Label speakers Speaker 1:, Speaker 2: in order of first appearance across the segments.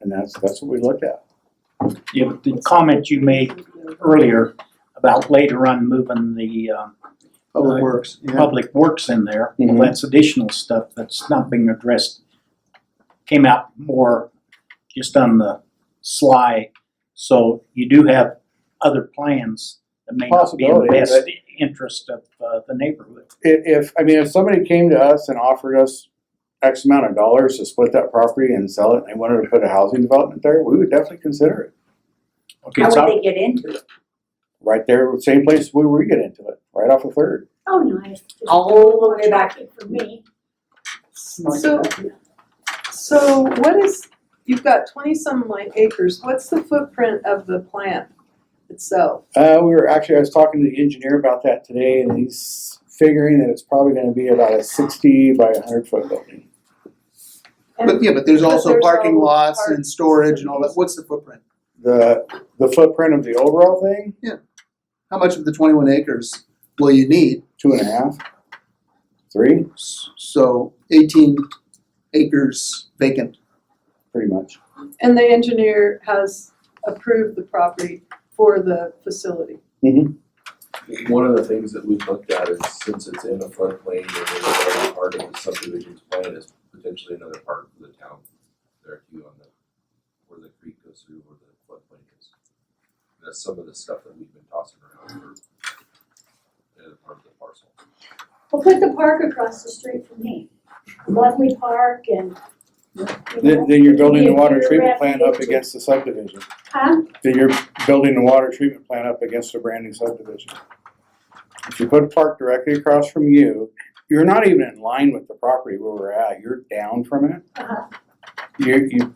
Speaker 1: And that's, that's what we look at.
Speaker 2: Yeah, but the comment you made earlier about later on moving the um,
Speaker 1: Public Works, yeah.
Speaker 2: public works in there, well,
Speaker 1: Mhm.
Speaker 2: that's additional stuff that's not being addressed. Came out more just on the sly, so you do have other plans that may not be in the
Speaker 1: Possibility,
Speaker 2: best interest of uh, the neighborhood.
Speaker 1: If, if, I mean, if somebody came to us and offered us X amount of dollars to split that property and sell it, and they wanted to put a housing development there, we would definitely consider it.
Speaker 2: Okay,
Speaker 3: How
Speaker 2: so
Speaker 3: would they get into it?
Speaker 1: Right there, same place we were get into it, right off of Third.
Speaker 3: Oh, nice, all the way back in for me.
Speaker 4: So- So what is, you've got twenty some like acres, what's the footprint of the plant itself?
Speaker 1: Uh, we were actually, I was talking to the engineer about that today, and he's figuring that it's probably gonna be about a sixty by a hundred foot building.
Speaker 5: But yeah, but there's
Speaker 4: But
Speaker 5: also
Speaker 4: there's
Speaker 5: parking
Speaker 4: all
Speaker 5: lots and
Speaker 4: parks
Speaker 5: storage
Speaker 4: and
Speaker 5: and all that,
Speaker 4: things.
Speaker 5: what's the footprint?
Speaker 1: The, the footprint of the overall thing,
Speaker 5: How much of the twenty-one acres will you need?
Speaker 1: two and a half, three,
Speaker 5: S- So eighteen acres vacant.
Speaker 1: pretty much.
Speaker 4: And the engineer has approved the property for the facility.
Speaker 1: Mm-hmm.
Speaker 6: One of the things that we've looked at is since it's in a floodplain and it's already part of the subdivision's plan is potentially another part of the town there too on the, where the creek goes through, where the floodplain is. That's some of the stuff that we've been tossing around for uh, part of the parcel.
Speaker 3: Well, put the park across the street from me, lovely park and, you
Speaker 1: Then,
Speaker 3: know,
Speaker 1: then you're building the
Speaker 3: Yeah,
Speaker 1: water
Speaker 3: you're
Speaker 1: treatment plant up
Speaker 3: wrapping it.
Speaker 1: against the subdivision.
Speaker 3: huh?
Speaker 1: Then you're building the water treatment plant up against a brand new subdivision. If you put a park directly across from you, you're not even in line with the property where we're at, you're down from it.
Speaker 3: Uh-huh.
Speaker 1: You, you,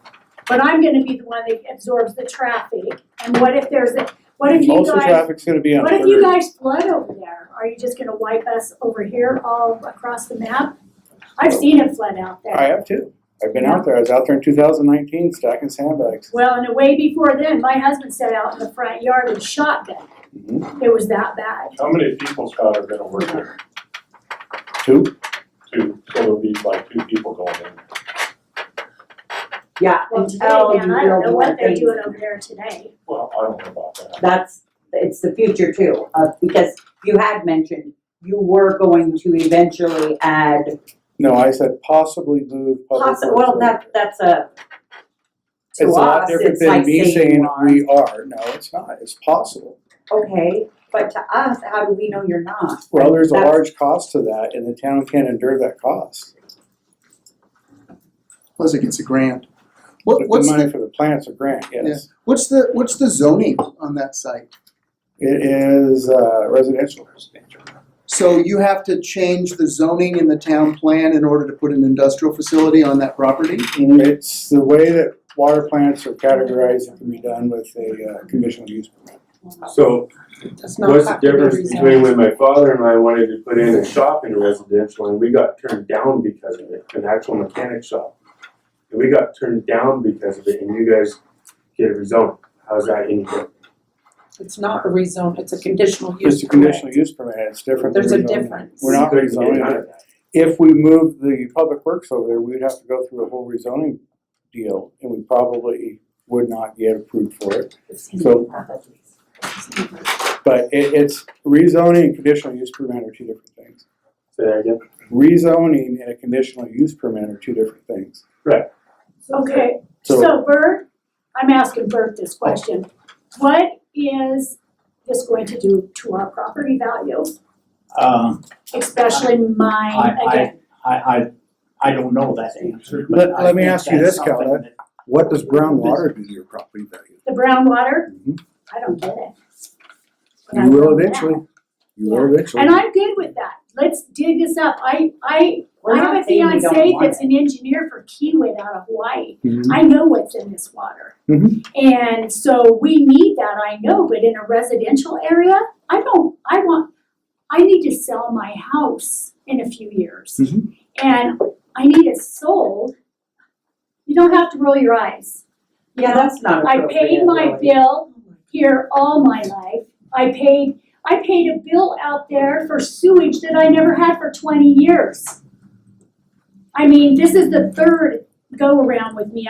Speaker 3: But I'm gonna be the one that absorbs the traffic, and what if there's a, what if you
Speaker 1: most of the
Speaker 3: guys,
Speaker 1: traffic's gonna be on
Speaker 3: what
Speaker 1: Third.
Speaker 3: if you guys flood over there? Are you just gonna wipe us over here all across the map? I've seen it flood out there.
Speaker 1: I have too. I've been out there. I was out there in two thousand nineteen stacking sandbags.
Speaker 3: Well, and way before then, my husband sat out in the front yard and shotgun.
Speaker 1: Mm-hmm.
Speaker 3: It was that bad.
Speaker 7: How many people, Scott, are gonna work there?
Speaker 1: Two,
Speaker 7: Two, so it'll be like two people going in.
Speaker 8: Yeah,
Speaker 3: Well,
Speaker 8: until
Speaker 3: today, man,
Speaker 8: you
Speaker 3: I don't
Speaker 8: build
Speaker 3: know
Speaker 8: more
Speaker 3: what they're
Speaker 8: things.
Speaker 3: doing over there today.
Speaker 7: Well, I don't know about that.
Speaker 8: That's, it's the future too, uh, because you had mentioned you were going to eventually add,
Speaker 1: no, I said possibly move public
Speaker 8: possi-
Speaker 1: works
Speaker 8: well,
Speaker 1: over
Speaker 8: that,
Speaker 1: there.
Speaker 8: that's a, to
Speaker 1: It's a lot
Speaker 8: us,
Speaker 1: different
Speaker 8: it's like
Speaker 1: than me
Speaker 8: saying
Speaker 1: saying
Speaker 8: you are.
Speaker 1: we are. No, it's not. It's possible.
Speaker 8: Okay, but to us, how do we know you're not?
Speaker 1: Well, there's a
Speaker 8: That's-
Speaker 1: large cost to that and the town can't endure that cost.
Speaker 5: Plus it gets a grant.
Speaker 1: But
Speaker 5: What, what's
Speaker 1: The
Speaker 5: the,
Speaker 1: money for the plant's a grant, yes.
Speaker 5: what's the, what's the zoning on that site?
Speaker 1: It is uh, residential.
Speaker 5: So you have to change the zoning in the town plan in order to put an industrial facility on that property?
Speaker 1: It's the way that water plants are categorized, it can be done with a uh, conditional use permit.
Speaker 9: So what's the difference between when my father and I wanted to put in a shop in residential and we got turned down because of it, an actual mechanic shop? And we got turned down because of it and you guys get a rezone. How's that any good?
Speaker 10: It's not a rezone, it's a conditional use.
Speaker 1: It's a conditional use permit, it's different. than
Speaker 10: There's a
Speaker 1: rezoning.
Speaker 10: difference.
Speaker 1: We're not
Speaker 9: Couldn't get
Speaker 1: rezoning
Speaker 9: none
Speaker 1: it.
Speaker 9: of that.
Speaker 1: If we moved the public works over there, we'd have to go through a whole rezoning deal and we probably would not get approved for it. So, but it, it's rezoning and conditional use permit are two different things.
Speaker 9: Say that again?
Speaker 1: Rezoning and a conditional use permit are two different things.
Speaker 3: Okay,
Speaker 1: So-
Speaker 3: so Bert, I'm asking Bert this question. What is this going to do to our property value,
Speaker 2: um,
Speaker 3: especially mine
Speaker 2: I- I-
Speaker 3: again?
Speaker 2: I, I, I don't know that answer, but
Speaker 1: Let-
Speaker 2: I
Speaker 1: let me
Speaker 2: think
Speaker 1: ask you
Speaker 2: that's
Speaker 1: this, Cal,
Speaker 2: something
Speaker 1: What does brown water do to your property value?
Speaker 3: The brown water,
Speaker 1: Mhm.
Speaker 3: I don't get it. But I
Speaker 1: You will
Speaker 3: know that.
Speaker 1: eventually, you will eventually.
Speaker 3: And I'm good with that. Let's dig this up. I, I,
Speaker 8: We're
Speaker 3: I
Speaker 8: not
Speaker 3: have a
Speaker 8: saying we don't
Speaker 3: fiance
Speaker 8: want
Speaker 3: that's an engineer for Kiewit out of Hawaii.
Speaker 1: Mhm.
Speaker 3: I know what's in this water.
Speaker 1: Mhm.
Speaker 3: And so we need that, I know, but in a residential area, I don't, I want, I need to sell my house in a few years.
Speaker 1: Mhm.
Speaker 3: And I need it sold. You don't have to roll your eyes.
Speaker 8: Yeah, that's not
Speaker 3: I
Speaker 8: appropriate
Speaker 3: paid my
Speaker 8: really.
Speaker 3: bill here all my life. I paid, I paid a bill out there for sewage that I never had for twenty years. I mean, this is the third go-around with me